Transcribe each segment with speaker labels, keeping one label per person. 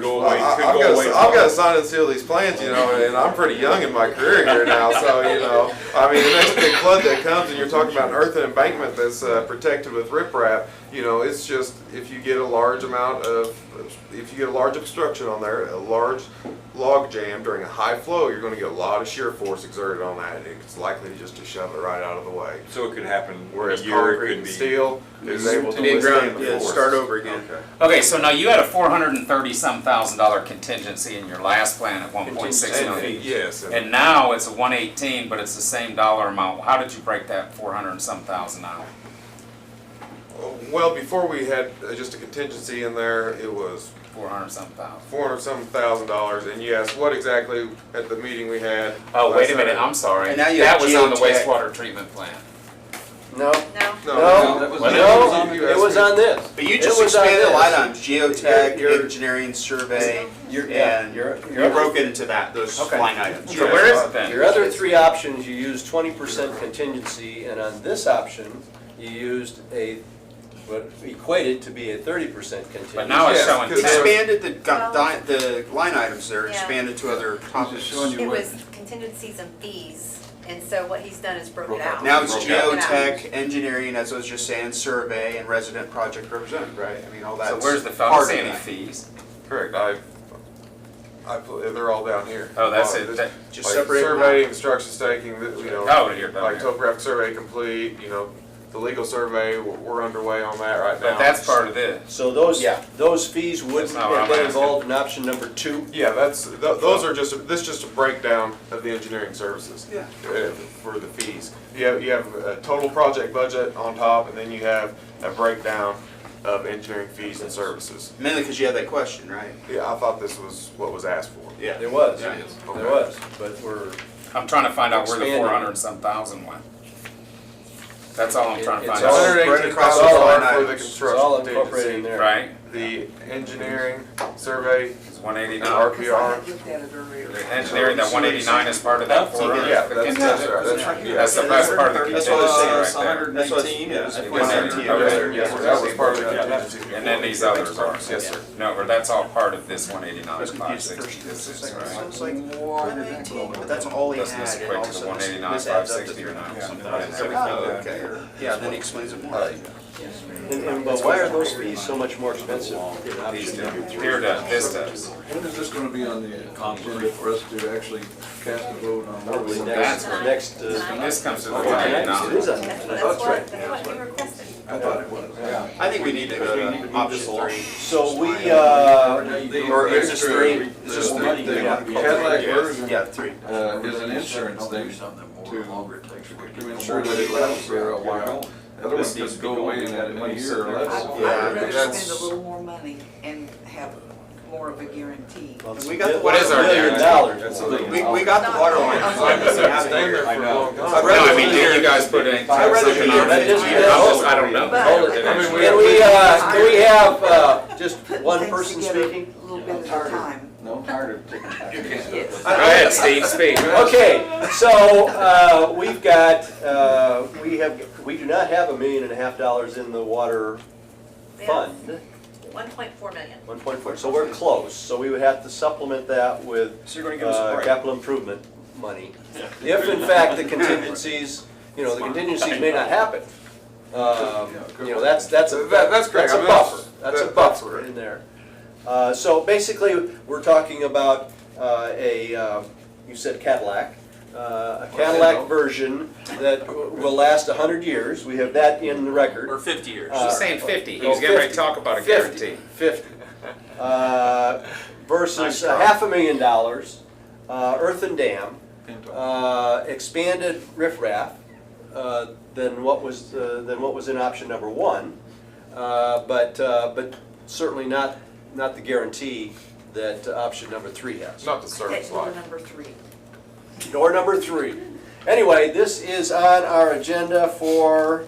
Speaker 1: go away.
Speaker 2: I,
Speaker 1: Could
Speaker 2: have
Speaker 1: go
Speaker 2: got
Speaker 1: away.
Speaker 2: to, I've got to sign and seal these plans, you know, and, I'm pretty young in my career here now, so you know, I mean, the next big flood that comes, and you're talking about an earthen embankment that's uh, protected with riprap, you know, it's just if you get a large amount of, if you get a large obstruction on there, a large log jam during a high flow, you're going to get a lot of shear force exerted on that, and it's likely just to shove it right out of the way.
Speaker 1: So it could happen in a
Speaker 2: Whereas
Speaker 1: year,
Speaker 2: concrete
Speaker 1: it could
Speaker 2: and
Speaker 1: be.
Speaker 2: steel is able to
Speaker 3: Need
Speaker 2: withstand
Speaker 3: ground,
Speaker 2: the
Speaker 3: yeah,
Speaker 2: force.
Speaker 3: start over again.
Speaker 2: Okay.
Speaker 4: Okay, so now you had a four hundred and thirty some thousand dollar contingency in your last plan at one point six
Speaker 3: Contingency.
Speaker 4: million.
Speaker 2: Yes. and-
Speaker 4: And now it's a one eighteen, but it's the same dollar amount. How did you break that four hundred and some thousand out?
Speaker 2: Well, before we had uh, just a contingency in there, it was
Speaker 4: Four hundred some thousand?
Speaker 2: four hundred some thousand dollars, and yes, what exactly at the meeting we had.
Speaker 4: Oh,
Speaker 2: last
Speaker 4: wait a minute,
Speaker 2: Saturday-
Speaker 4: I'm sorry.
Speaker 3: And now you have
Speaker 4: That was on the
Speaker 3: geotech.
Speaker 4: wastewater treatment plan.
Speaker 5: No,
Speaker 6: No.
Speaker 2: No,
Speaker 5: No.
Speaker 2: no,
Speaker 1: that was-
Speaker 5: no,
Speaker 2: you
Speaker 5: it
Speaker 2: asked
Speaker 5: was
Speaker 2: me.
Speaker 5: on this.
Speaker 3: But you
Speaker 5: It
Speaker 3: just
Speaker 5: was on
Speaker 3: expanded a
Speaker 5: this.
Speaker 3: lot on geotech,
Speaker 5: You're- you're-
Speaker 3: engineering, survey,
Speaker 5: Your- yeah,
Speaker 3: and
Speaker 5: your-
Speaker 3: you
Speaker 5: your other-
Speaker 3: broke it into that, those
Speaker 4: Okay.
Speaker 3: line items.
Speaker 4: So where is it then?
Speaker 5: Your other three options, you used twenty percent contingency, and on this option, you used a, what equated to be a thirty percent contingency.
Speaker 4: But now it's
Speaker 2: Yes,
Speaker 4: showing
Speaker 2: 'cause there-
Speaker 4: ten.
Speaker 3: Expanded the, gu- di- the line items there,
Speaker 6: Yeah.
Speaker 3: expanded to other topics.
Speaker 6: It was contingencies and fees, and so what he's done is broken
Speaker 1: Broke out.
Speaker 6: out.
Speaker 3: Now it's
Speaker 1: Broke
Speaker 6: out.
Speaker 3: geotech, engineering, as I was just saying, survey, and resident project representative, right? I mean, all that's
Speaker 4: So
Speaker 3: part of
Speaker 4: where's the, I don't see any
Speaker 3: that.
Speaker 4: fees.
Speaker 2: Correct, I, I, put- they're all down here.
Speaker 4: Oh, that's
Speaker 2: Uh,
Speaker 4: it.
Speaker 2: this-
Speaker 4: That-
Speaker 3: Just
Speaker 2: like
Speaker 3: separate 'em
Speaker 2: Survey, construction staking, that, you know.
Speaker 4: Oh, here, down
Speaker 2: Like
Speaker 4: here.
Speaker 2: topographic survey complete, you know, the legal survey, we're- we're underway on that right now.
Speaker 4: But that's part of this.
Speaker 5: So those,
Speaker 3: Yeah.
Speaker 5: those fees would
Speaker 4: That's not what
Speaker 5: have
Speaker 4: I'm
Speaker 5: been
Speaker 4: asking.
Speaker 5: involved in option number two.
Speaker 2: Yeah, that's, th- those are just, this is just a breakdown of the engineering services.
Speaker 3: Yeah.
Speaker 2: uh, For the fees. You have, you have a total project budget on top, and then you have a breakdown of engineering fees and services.
Speaker 3: Mainly because you had that question, right?
Speaker 2: Yeah, I thought this was what was asked for.
Speaker 3: Yeah.
Speaker 5: There was,
Speaker 3: Yeah.
Speaker 5: there was, but we're,
Speaker 4: I'm trying to find out where the
Speaker 5: Expanded.
Speaker 4: four hundred and some thousand went. That's all I'm trying to
Speaker 5: It- it's
Speaker 4: find
Speaker 2: One
Speaker 5: all-
Speaker 4: out,
Speaker 2: hundred eighteen thousand dollars for the
Speaker 5: it's all
Speaker 2: construction
Speaker 5: incorporated
Speaker 2: contingency.
Speaker 5: in there.
Speaker 4: right?
Speaker 2: The engineering survey,
Speaker 4: It's one eighty
Speaker 2: and
Speaker 4: nine.
Speaker 2: RPR.
Speaker 4: The engineering, that one eighty nine is part of that four hundred.
Speaker 2: Yeah, that's, that's right, that's right. yeah.
Speaker 4: That's the best part of the
Speaker 3: That's what I was saying, it's That's
Speaker 4: contingency right there.
Speaker 3: what- yeah, it's
Speaker 4: 119,
Speaker 3: 119,
Speaker 4: okay.
Speaker 2: Yes, sir, that was part of the contingency.
Speaker 4: And then these others are.
Speaker 2: Yes, sir.
Speaker 4: No, but that's all part of this one eighty nine,
Speaker 3: That's
Speaker 4: five
Speaker 3: confused the
Speaker 4: sixty,
Speaker 3: first two,
Speaker 4: this is,
Speaker 3: second.
Speaker 4: right?
Speaker 3: Sounds like one nineteen, but that's all he had.
Speaker 4: Doesn't this
Speaker 3: and
Speaker 4: equate
Speaker 3: all
Speaker 4: to
Speaker 3: of a sudden
Speaker 4: 189,
Speaker 3: this adds up to
Speaker 4: 560 or not?
Speaker 3: 300 something.
Speaker 4: Yeah. Right.
Speaker 3: Oh,
Speaker 4: Everything
Speaker 3: okay. Yeah, then he explains it more.
Speaker 5: And, and, but why are those fees so much more expensive in
Speaker 4: These
Speaker 5: option
Speaker 4: do.
Speaker 5: number three?
Speaker 4: Here does, this does.
Speaker 7: When is this gonna be on the agenda for us to actually cast a vote on what
Speaker 5: Probably
Speaker 7: we
Speaker 5: next, next,
Speaker 4: And
Speaker 5: uh,
Speaker 4: this comes to the one eighty
Speaker 5: tonight, it
Speaker 4: nine.
Speaker 5: is on
Speaker 6: That's
Speaker 5: tonight.
Speaker 6: that's what, that's what you requested.
Speaker 7: I thought it was.
Speaker 3: I think we need to go
Speaker 4: uh,
Speaker 3: to option three.
Speaker 5: So we, uh,
Speaker 3: Or is this three? Is this
Speaker 7: The-
Speaker 3: three?
Speaker 7: the-
Speaker 5: Yeah.
Speaker 7: the Cadillac
Speaker 2: Yeah.
Speaker 7: version,
Speaker 3: Yeah, three.
Speaker 7: uh, is an insurance thing to, to ensure that it lasts for a while. Other one just go away in that in a year or
Speaker 8: I
Speaker 7: less.
Speaker 8: I would
Speaker 3: Yeah,
Speaker 8: rather
Speaker 2: that's-
Speaker 8: spend a little more money and have more of a guarantee.
Speaker 3: We got the
Speaker 5: what is our
Speaker 3: water-
Speaker 5: million
Speaker 2: That's
Speaker 5: dollars?
Speaker 2: a legal-
Speaker 3: We, we got the water line.
Speaker 2: It's like it's been standard for a long time.
Speaker 3: I'd
Speaker 4: No,
Speaker 3: rather
Speaker 4: I mean, did you guys put in?
Speaker 3: I'd rather
Speaker 4: something
Speaker 3: be here.
Speaker 4: on
Speaker 3: That
Speaker 4: it?
Speaker 3: is-
Speaker 4: I'm just- I don't know.
Speaker 8: But-
Speaker 2: I mean, we-
Speaker 5: Can we, uh, can we have, uh, just one person speaking?
Speaker 8: A little bit at a time.
Speaker 7: No, I'm tired of taking back.
Speaker 8: Yes.
Speaker 4: Go ahead, Steve, speak.
Speaker 5: Okay, so, uh, we've got, uh, we have, we do not have a million and a half dollars in the water fund,
Speaker 6: One point four million.
Speaker 5: one point four, so we're close. So we would have to supplement that with
Speaker 3: So you're gonna give us a
Speaker 5: uh,
Speaker 3: break.
Speaker 5: capital improvement money. If in fact the contingencies, you know, the contingencies may not happen. Um, You know, that's, that's a,
Speaker 2: That- that's
Speaker 5: that's
Speaker 2: correct. I
Speaker 5: a
Speaker 2: mean,
Speaker 5: buffer,
Speaker 2: that's-
Speaker 5: that's a
Speaker 2: that-
Speaker 5: buffer
Speaker 2: that's-
Speaker 5: in there. Uh, So basically, we're talking about uh, a, um, you said Cadillac, uh, a Cadillac version that w- will last a hundred years. We have that in the record.
Speaker 3: Or fifty years.
Speaker 5: Uh,
Speaker 4: She's saying fifty, he
Speaker 5: Oh,
Speaker 4: was getting ready to
Speaker 5: 50.
Speaker 4: talk about a
Speaker 5: 50,
Speaker 4: guarantee.
Speaker 5: Fifty. Uh, Versus a half a million dollars, uh, earth and dam, uh, expanded riffraff, uh, than what was, uh, than what was in option number one. Uh, But, uh, but certainly not, not the guarantee that option number three has.
Speaker 2: It's not the service
Speaker 8: That's
Speaker 2: line.
Speaker 8: door number three.
Speaker 5: Door number three. Anyway, this is on our agenda for,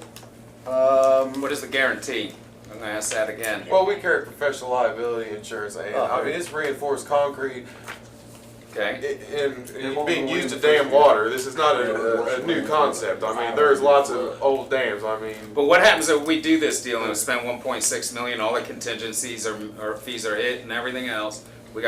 Speaker 5: um,
Speaker 4: What is the guarantee? I'm gonna ask that again.
Speaker 2: Well, we carry professional liability insurance, and I mean, it's reinforced concrete, i-
Speaker 4: Okay,
Speaker 2: and
Speaker 7: It won't
Speaker 2: being
Speaker 7: go
Speaker 2: used to
Speaker 7: in
Speaker 2: dam
Speaker 7: first.
Speaker 2: water, this is not a, a, a new concept, I mean, there's lots of old dams, I mean,
Speaker 4: but what happens if we do this deal and we spend one point six million, all the contingencies or, or fees are hit and everything else?